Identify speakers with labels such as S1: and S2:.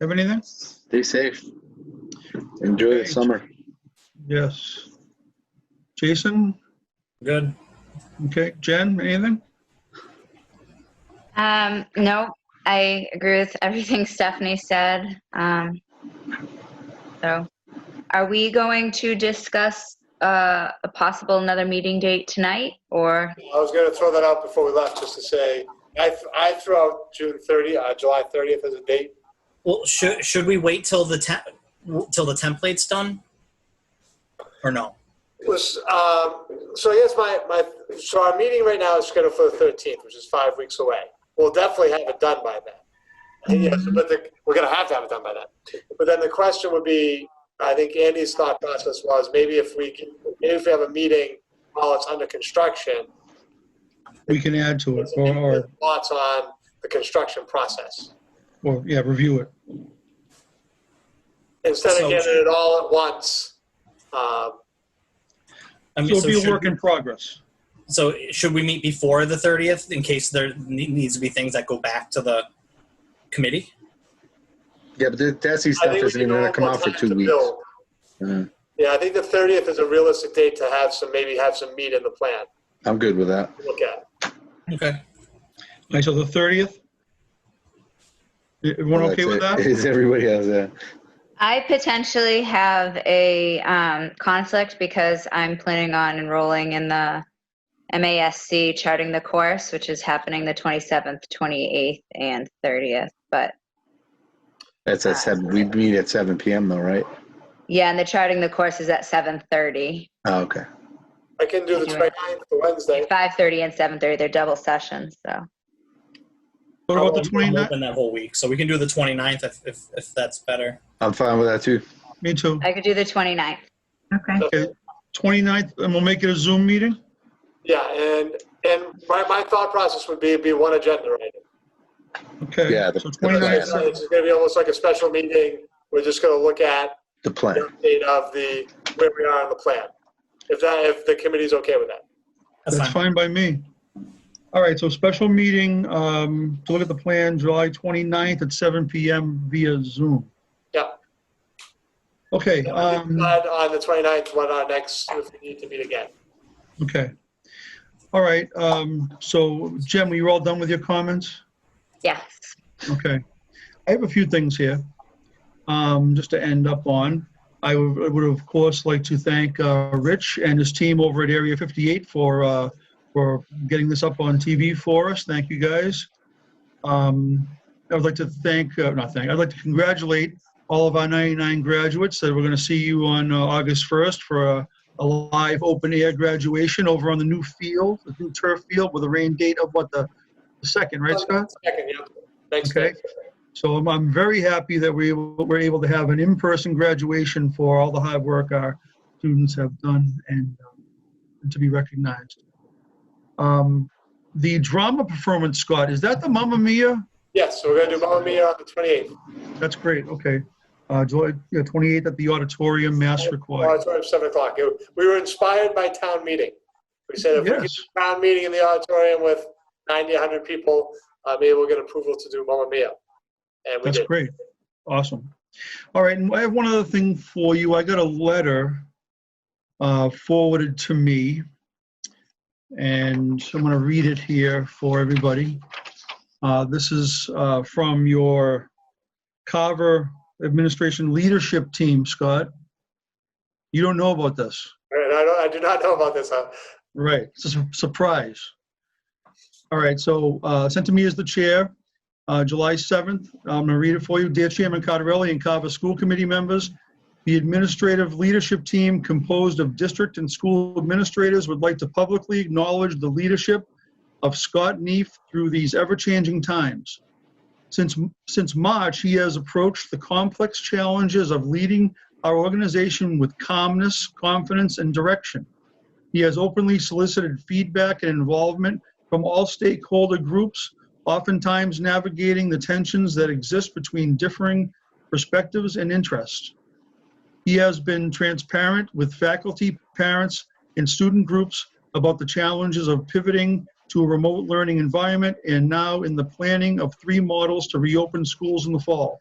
S1: Have anything?
S2: Stay safe. Enjoy the
S1: Okay.
S2: summer.
S1: Yes. Jason?
S3: Good.
S1: Okay, Jen, anything?
S4: Um, no, I agree with everything Stephanie said. Um, so, are we going to discuss uh, a possible another meeting date tonight, or
S5: I was going to throw that out before we left, just to say, I, th- I threw out June 30, uh, July 30th as a date.
S3: Well, should should we wait till the te- w- till the template's done, or no?
S5: Was, um, so yes, my, my, so our meeting right now is scheduled for the 13th, which is five weeks away. We'll definitely have it done by then. And Yes, but the, we're gonna have to have it done by then. But then the question would be, I think Andy's thought process was maybe if we can, maybe if we have a meeting while it's under construction,
S1: We can add to it or, or,
S5: thoughts on the construction process.
S1: or, yeah, review it.
S5: Instead
S3: So-
S5: of getting it all at once, um,
S3: I
S1: So it'll be a
S3: Um, should,
S1: work in progress.
S3: so should we meet before the thirtieth in case there ne- needs to be things that go back to the committee?
S2: Yeah, but the Desi
S5: I
S2: stuff
S5: think we
S2: isn't
S5: can
S2: even
S5: all
S2: gonna come
S5: have
S2: out for
S5: time
S2: two
S5: to
S2: weeks.
S5: build.
S2: Uh,
S5: Yeah, I think the thirtieth is a realistic date to have some, maybe have some meat in the plan
S2: I'm good with that.
S5: to look at.
S3: Okay.
S1: Okay, so the 30th? Everyone okay with
S2: That's it.
S1: that?
S2: Is everybody else that?
S4: I potentially have a um, conflict because I'm planning on enrolling in the MASC charting the course, which is happening the 27th, 28th, and 30th. But
S2: That's at seven, we meet at seven PM though, right?
S4: yeah, and the charting the course is at 7:30.
S2: Oh, okay.
S5: I can do the
S4: Anyway.
S5: 29th, the Wednesday.
S4: 5:30 and 7:30, they're double sessions, so.
S1: What about the
S3: I'm
S1: 29th?
S3: open that whole week, so we can do the 29th if if, if that's better.
S2: I'm fine with that too.
S1: Me too.
S4: I could do the 29th.
S6: Okay.
S1: Okay, 29th, and we'll make it a Zoom meeting?
S5: Yeah, and, and my, my thought process would be, be one agenda item.
S1: Okay.
S2: Yeah, the-
S1: So
S2: the
S1: 29th,
S2: plan.
S5: It's gonna be almost like a special meeting. We're just gonna look at
S2: The
S5: the
S2: plan.
S5: update of the, where we are on the plan. If that, if the committee's okay with that.
S3: That's,
S1: that's
S3: fine.
S1: fine by me. All right, so special meeting, um, to look at the plan, July 29th at 7 PM via Zoom.
S5: Yeah.
S1: Okay,
S5: And we can
S1: um,
S5: decide On the 29th, when our next, if we need to meet again.
S1: okay. All right, um, so Jim, were you all done with your comments?
S4: Yes.
S1: Okay. I have a few things here, um, just to end up on. I would, I would of course like to thank, uh, Rich and his team over at Area 58 for, uh, for getting this up on TV for us. Thank you guys. Um, I would like to thank, uh, not thank, I'd like to congratulate all of our 99 graduates that we're going to see you on uh, August 1st for a, a live open air graduation over on the new field, the new turf field with a rain date of what, the the second, right, Scott?
S5: Second, yeah. Next
S1: Okay.
S5: day.
S1: So I'm, I'm very happy that we were able to have an in-person graduation for all the hard work our students have done and um, to be recognized. Um, the drama performance, Scott, is that the Mamma Mia?
S5: Yes, so we're gonna do Mamma Mia on the 28th.
S1: That's great. Okay. Uh, July yeah, 28th at the auditorium, mass required.
S5: Auditorium, seven o'clock. It- We were inspired by town meeting. We said if we get
S1: Yes.
S5: a town meeting in the auditorium with 90, 100 people, uh, maybe we'll get approval to do Mamma Mia. And we
S1: That's
S5: did.
S1: great. Awesome. All right, and I have one other thing for you. I got a letter uh, forwarded to me, and I'm going to read it here for everybody. Uh, This is uh, from your Carver Administration Leadership Team, Scott. You don't know about this.
S5: And I don't, I do not know about this, huh?
S1: Right, it's a su- surprise. All right, so uh, sent to me as the chair, uh, July 7th. I'm going to read it for you. Dear Chairman Cottarelli and Carver School Committee members, the administrative leadership team composed of district and school administrators would like to publicly acknowledge the leadership of Scott Neef through these ever-changing times. Since, since March, he has approached the complex challenges of leading our organization with calmness, confidence, and direction. He has openly solicited feedback and involvement from all stakeholder groups, oftentimes navigating the tensions that exist between differing perspectives and interests. He has been transparent with faculty, parents, and student groups about the challenges of pivoting to a remote learning environment and now in the planning of three models to reopen schools in the fall.